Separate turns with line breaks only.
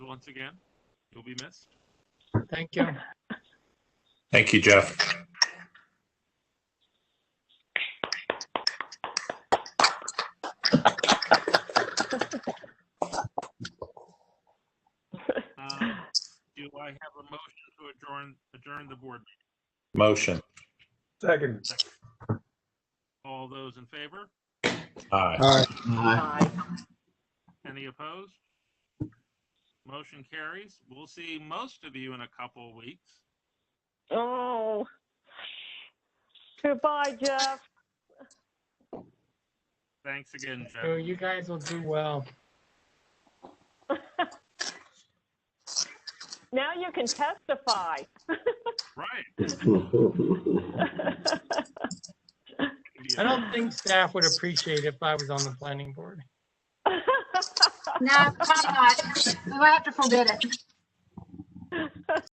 once again. You'll be missed.
Thank you.
Thank you, Jeff.
Um, Do I have a motion to adjourn, adjourn the board? meeting?
Motion.
Second.
All those in favor?
Aye.
All right.
Any opposed? Motion carries. We'll see most of you in a couple of weeks.
Oh. Goodbye, Jeff.
Thanks again,
So
Jeff.
you guys will do well.
Now you can testify.
Right.
I don't think staff would appreciate if I was on the planning board.
No, probably not. We might have to forbid it.